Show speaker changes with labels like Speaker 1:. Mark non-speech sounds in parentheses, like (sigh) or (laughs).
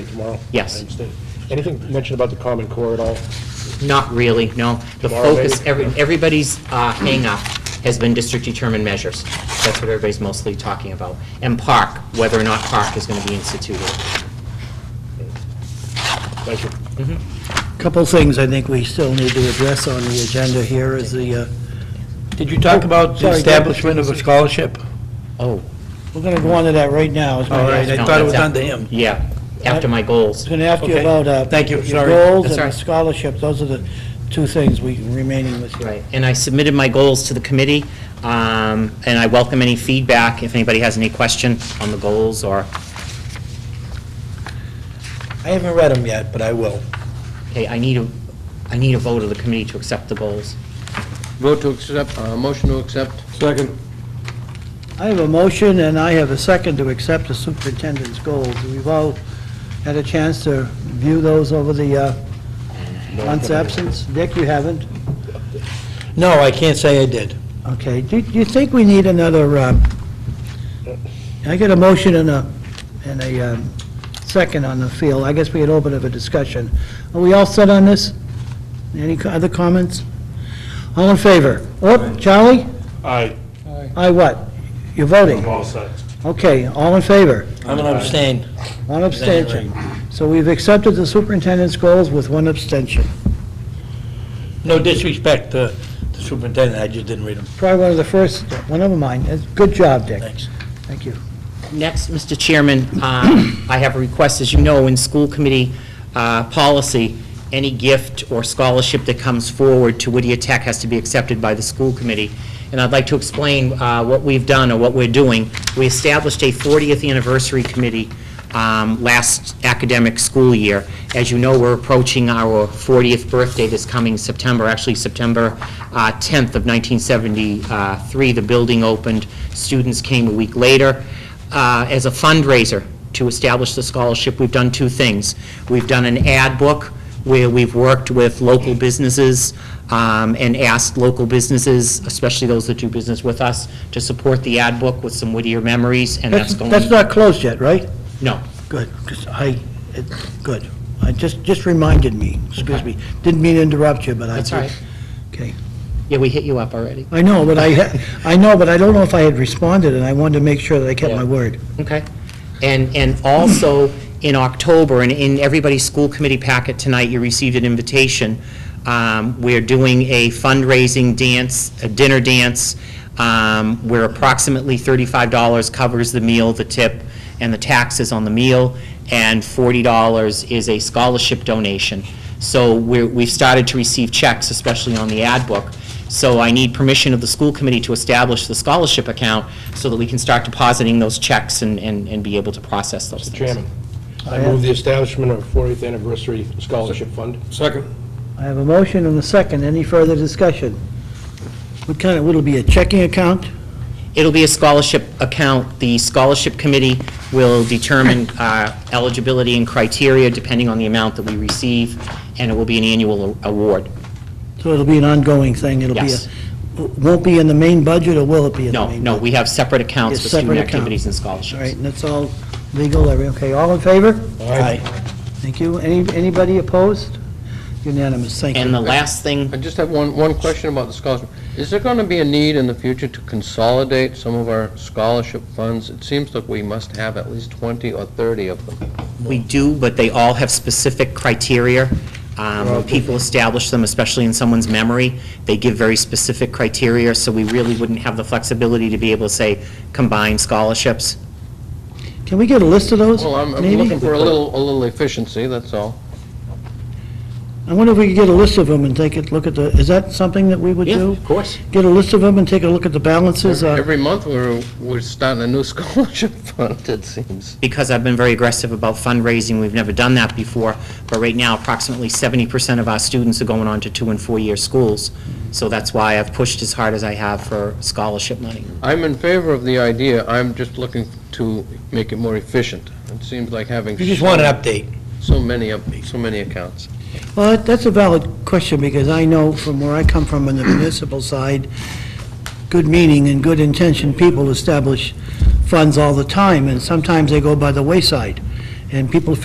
Speaker 1: tomorrow?
Speaker 2: Yes.
Speaker 1: I understand. Anything mentioned about the Common Core at all?
Speaker 2: Not really, no. The
Speaker 1: Tomorrow, maybe?
Speaker 2: focus, every- everybody's uh, hang-up has been district-determined measures. That's what everybody's mostly talking about. And park, whether or not park is going to be instituted.
Speaker 1: Thank you.
Speaker 3: Couple things I think we still need to address on the agenda here is the, uh,
Speaker 4: Did you talk about the
Speaker 3: Oh, Sorry, go ahead.
Speaker 4: establishment of a scholarship?
Speaker 2: Oh,
Speaker 3: we're going to go on to that right now. is my
Speaker 4: All right,
Speaker 3: guess.
Speaker 4: I
Speaker 2: No,
Speaker 4: thought
Speaker 2: that's
Speaker 4: it was
Speaker 2: out.
Speaker 4: under him.
Speaker 2: yeah, after my
Speaker 3: I was
Speaker 2: goals.
Speaker 3: going to ask you
Speaker 4: Okay.
Speaker 3: about uh,
Speaker 4: Thank you,
Speaker 3: your
Speaker 4: sorry.
Speaker 3: goals
Speaker 2: That's
Speaker 3: and
Speaker 2: all
Speaker 3: the
Speaker 2: right.
Speaker 3: scholarship. Those are the two things we remaining with you.
Speaker 2: Right, and I submitted my goals to the committee, um, and I welcome any feedback, if anybody has any question on the goals or,
Speaker 3: I haven't read them yet, but I will.
Speaker 2: okay, I need a, I need a vote of the committee to accept the goals.
Speaker 5: Vote to accept, uh, motion to accept.
Speaker 1: Second.
Speaker 3: I have a motion and I have a second to accept the superintendent's goals. We've all had a chance to view those over the uh, month's absence. Dick, you haven't?
Speaker 4: No, I can't say I did.
Speaker 3: Okay, do do you think we need another, uh, I get a motion and a, and a um, second on the field, I guess we had opened up a discussion. Are we all set on this? Any co- other comments? All in favor? Oh, Charlie?
Speaker 1: Aye.
Speaker 3: I what? You're voting?
Speaker 1: all set.
Speaker 3: Okay, all in favor?
Speaker 4: I'm going to abstain.
Speaker 3: One abstention. So we've accepted the superintendent's goals with one abstention.
Speaker 4: No disrespect to the superintendent, I just didn't read them.
Speaker 3: Try one of the first, well, never mind, That's- good job, Dick.
Speaker 4: Thanks.
Speaker 3: Thank you.
Speaker 2: Next, Mr. Chairman, um, I have a request, as you know, in school committee uh, policy, any gift or scholarship that comes forward to Whittier Tech has to be accepted by the school committee. And I'd like to explain uh, what we've done or what we're doing. We established a 40th anniversary committee um, last academic school year. As you know, we're approaching our 40th birthday this coming September, actually September uh, 10th of 1973. The building opened, students came a week later uh, as a fundraiser to establish the scholarship, we've done two things. We've done an ad book where we've worked with local businesses um, and asked local businesses, especially those that do business with us, to support the ad book with some Whittier memories, and that's
Speaker 3: That's
Speaker 2: going...
Speaker 3: that's not closed yet, right?
Speaker 2: No.
Speaker 3: Good, 'cause I, it- good. I just, just reminded me, excuse me. Didn't mean to interrupt you, but I.
Speaker 2: That's all right.
Speaker 3: Okay.
Speaker 2: Yeah, we hit you up already.
Speaker 3: I know, but I, ha- I know, but I don't know if I had responded, and I wanted to make sure that I kept my
Speaker 2: Yeah.
Speaker 3: word.
Speaker 2: Okay. And, and also, in October, and in everybody's school committee packet tonight, you received an invitation. Um, We're doing a fundraising dance, a dinner dance, um, where approximately $35 covers the meal, the tip, and the taxes on the meal, and $40 is a scholarship donation. So we're, we've started to receive checks, especially on the ad book. So I need permission of the school committee to establish the scholarship account so that we can start depositing those checks and, and and be able to process those things.
Speaker 1: Chairman, I move the establishment of 40th Anniversary Scholarship Fund.
Speaker 5: Second.
Speaker 3: I have a motion and a second. Any further discussion? What kind of, would it be a checking account?
Speaker 2: It'll be a scholarship account. The scholarship committee will determine uh, eligibility and criteria depending on the amount that we receive, and it will be an annual a- award.
Speaker 3: So it'll be an ongoing thing? It'll be a-
Speaker 2: Yes.
Speaker 3: Won't be in the main budget, or will it be in the
Speaker 2: No,
Speaker 3: main?
Speaker 2: no, we have separate accounts
Speaker 3: Yes,
Speaker 2: for student
Speaker 3: separate account.
Speaker 2: activities and
Speaker 3: budget? All
Speaker 2: scholarships.
Speaker 3: right, and that's all legal, every- okay, all in favor?
Speaker 1: Aye.
Speaker 3: Thank you. Any Anybody opposed? Unanimous, thank you.
Speaker 2: And the last thing,
Speaker 5: I just have one, one question about the scholarship. Is there going to be a need in the future to consolidate some of our scholarship funds? It seems like we must have at least 20 or 30 of them.
Speaker 2: we do, but they all have specific criteria. Um, When people establish them, especially in someone's memory, they give very specific criteria, so we really wouldn't have the flexibility to be able to say, combine scholarships.
Speaker 3: Can we get a list of those?
Speaker 5: Well, I'm, I'm
Speaker 3: maybe?
Speaker 5: looking for a little, a little efficiency, that's all.
Speaker 3: I wonder if we could get a list of them and take a look at the, is that something that we would do?
Speaker 2: course.
Speaker 3: Get a list of them and take a look at the balances? uh,
Speaker 5: Every month, we're, we're starting a new (laughs) scholarship fund, it seems.
Speaker 2: because I've been very aggressive about fundraising, we've never done that before, but right now, approximately 70% of our students are going on to two and four-year schools, so that's why I've pushed as hard as I have for scholarship money.
Speaker 5: I'm in favor of the idea, I'm just looking to make it more efficient. It seems like having
Speaker 4: You just want an update.
Speaker 5: so many, up- so many accounts.
Speaker 3: Well, that- that's a valid question, because I know from where I come from on the municipal side, good meaning and good intention people establish funds all the time, and sometimes they go by the wayside, and people